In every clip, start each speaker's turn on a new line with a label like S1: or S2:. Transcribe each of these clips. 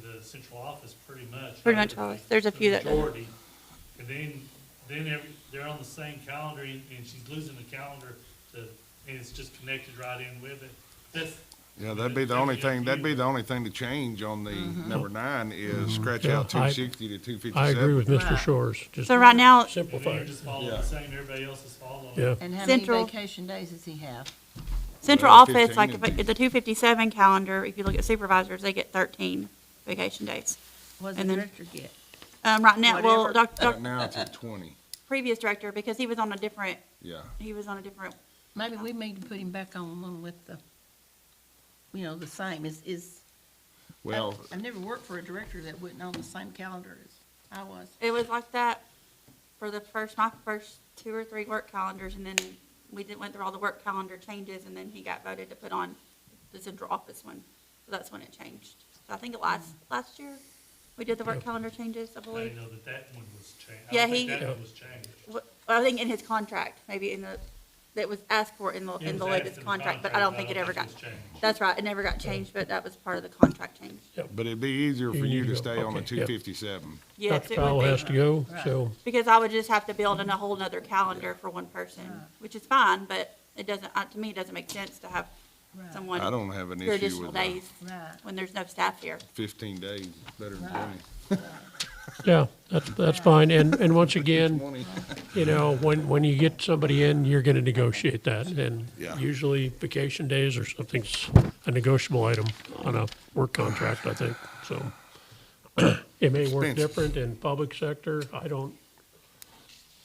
S1: the central office pretty much.
S2: Pretty much always. There's a
S1: The
S2: few that doesn't.
S1: Majority. And then, then every, they're on the same calendar and, and she's losing the calendar to, and it's just connected right in with it. That's.
S3: Yeah, that'd be the only thing, that'd be the only thing to change on the number nine is scratch
S4: Mm-hmm. Yeah,
S3: out
S4: I-
S3: two sixty to two fifty-seven.
S4: I agree with Mr.
S5: Right.
S4: Shores, just
S2: So right now,
S1: And then
S4: simplify,
S1: you're just following the same, everybody else is following.
S4: yeah.
S5: And how many
S2: Central.
S5: vacation days does he have?
S2: central
S3: Well,
S2: office,
S3: 15
S2: like
S3: and
S2: if it- the two fifty-seven calendar, if you look at supervisors, they get thirteen vacation days.
S5: What does
S2: And
S5: the
S2: then-
S5: director get?
S2: Um, right now, well,
S5: Whatever.
S2: doc, doc,
S3: Right now it's at twenty,
S2: previous director, because he was on a different,
S3: yeah.
S2: he was on a different,
S5: Maybe we need to put him back on one with the, you know, the same, is, is. I-
S3: Well,
S5: I've never worked for a director that wasn't on the same calendar as I was.
S2: it was like that for the first, my first two or three work calendars, and then we did, went through all the work calendar changes, and then he got voted to put on the central office one. So that's when it changed. So I think it last, last year, we did the work calendar changes, I
S1: I didn't
S2: believe.
S1: know that that one was changed. I
S2: Yeah,
S1: don't think
S2: he-
S1: that one was changed.
S2: Well, I think in his contract, maybe in the, that was asked for in the,
S1: It
S2: in the
S1: was asked
S2: latest
S1: in the
S2: contract, but I don't
S1: contract,
S2: think it ever got,
S1: was changed.
S2: that's right, it never got changed, but that was part of the contract change.
S3: but it'd be easier for you
S4: you
S3: to
S4: go.
S3: stay on the
S4: Okay,
S3: two
S4: yeah.
S3: fifty-seven.
S2: Yes,
S4: Dr.
S2: it
S4: Powell
S2: would
S4: has
S2: be,
S4: to go,
S5: Right.
S4: so,
S2: because I would just have to build in a whole nother calendar for one person, which is fine, but it doesn't, uh, to me, it doesn't make sense to have
S5: Right.
S2: someone
S3: I don't have an
S2: for
S3: issue
S2: additional
S3: with the
S2: days
S5: Right.
S2: when there's no staff here.
S3: fifteen days, better than
S5: Right.
S4: yeah, that's, that's fine. And, and once again,
S3: twenty.
S4: you know, when, when you get somebody in, you're gonna negotiate that. And
S3: Yeah.
S4: usually vacation days or something's a negotiable item on a work contract, I think, so. It may work
S3: Expenses.
S4: different in public sector, I don't,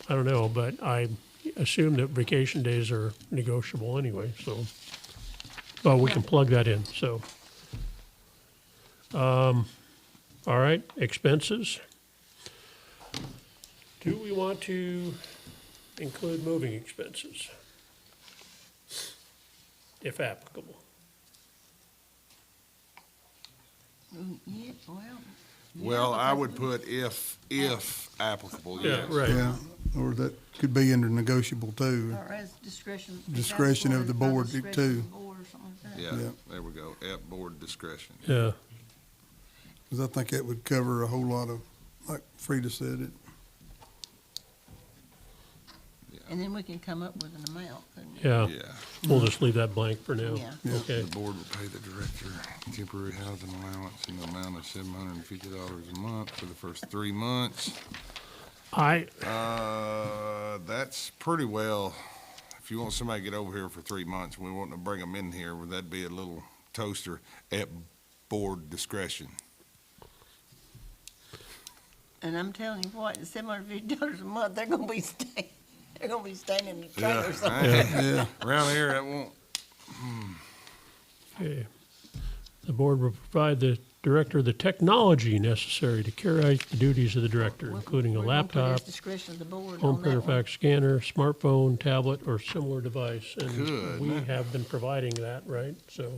S4: I don't know, but I assume that vacation days are negotiable anyway, so. Well, we can plug that in, so. Um, all right, expenses. Do we want to include moving expenses? If applicable.
S5: Mm, Yeah, well.
S3: Well, I would put if, if applicable, yes.
S4: right.
S6: Yeah, or that could be under negotiable too.
S5: Or as discretion.
S6: Discretion of the
S5: By
S6: board,
S5: discretion
S6: too.
S5: of the board or something like that.
S3: Yeah,
S6: Yeah.
S3: there we go, at board discretion.
S4: Yeah,
S6: Cause I think that would cover a whole lot of, like Frida said, it,
S5: And then we can come up with an amount, couldn't we?
S4: yeah,
S3: Yeah,
S4: we'll just leave that blank for now.
S5: Yeah.
S4: Okay.
S3: the board will pay the director temporary housing allowance in the amount of seven hundred and fifty dollars a month for the first three months.
S4: I,
S3: Uh, that's pretty well, if you want somebody to get over here for three months, we want to bring them in here, would that be a little toaster at board discretion?
S5: And I'm telling you what, at seven hundred fifty dollars a month, they're gonna be staying, they're gonna be staying in the trailer somewhere.
S6: yeah,
S3: Around here, that won't,
S4: Okay. The board will provide the director the technology necessary to carry out the duties of the director, including a
S5: We're gonna put it as
S4: laptop,
S5: Discretion of the board
S4: home
S5: on
S4: printer,
S5: that one.
S4: fax scanner, smartphone, tablet, or similar device.
S3: Good.
S4: And we have been providing that, right? So.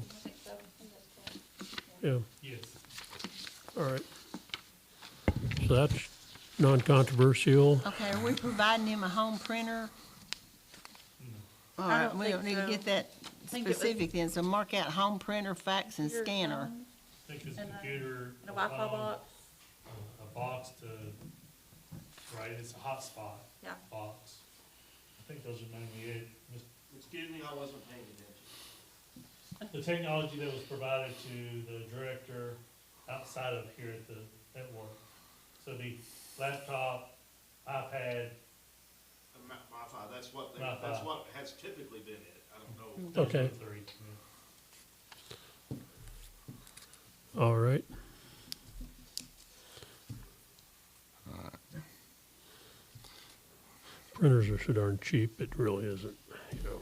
S4: Yeah,
S1: Yes.
S4: all right. So that's non-controversial.
S5: Okay, are we providing him a home printer?
S2: Mm.
S5: All
S2: I
S5: right,
S2: don't
S5: we
S2: think
S5: don't need to
S2: so.
S5: get that
S2: think it was-
S5: specific then, so mark out home printer, fax and scanner.
S2: um,
S1: I think it's a
S2: And a-
S1: computer.
S2: And a Wi-Fi
S1: phone,
S2: box,
S1: A a box to, right, it's a hotspot
S2: yeah.
S1: box. I think those are mainly it. Mis-
S7: Excuse me, I wasn't paying attention.
S1: The technology that was provided to the director outside of here at the, at work. So the laptop, iPad,
S7: Uh, Mi- MiFi, that's what, they-
S1: MiFi.
S7: that's what has typically been it. I don't know.
S1: those
S4: Okay.
S1: are the three.
S4: All right. Printers are so darn cheap, it really isn't, you know.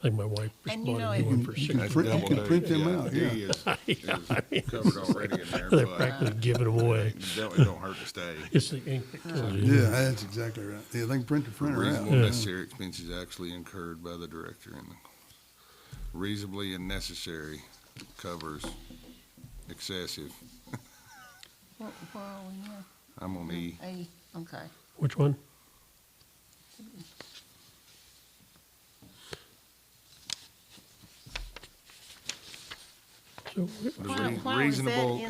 S4: I think my wife
S5: And you know,
S4: responded
S5: it-
S4: to one for six.
S3: that's
S6: print- you
S3: double
S6: can
S3: D.
S6: print them
S3: Yeah,
S6: out,
S3: D
S6: yeah.
S3: is-
S4: Yeah, I mean,
S3: is Covered already in there,
S4: They're
S3: but
S4: practically giving them away.
S3: it don't it don't hurt to stay.
S4: It's the ink that kills you.
S6: yeah, that's exactly right. Yeah, they can print the printer
S3: Reasonable
S6: out.
S4: Yeah.
S3: necessary expenses actually incurred by the director and reasonably and necessary covers excessive.
S5: Where where are we
S3: I'm on E.
S5: now? A, okay.
S4: Which one? So
S3: There's
S5: Why-
S3: rea-
S5: why was that
S3: reasonable
S5: in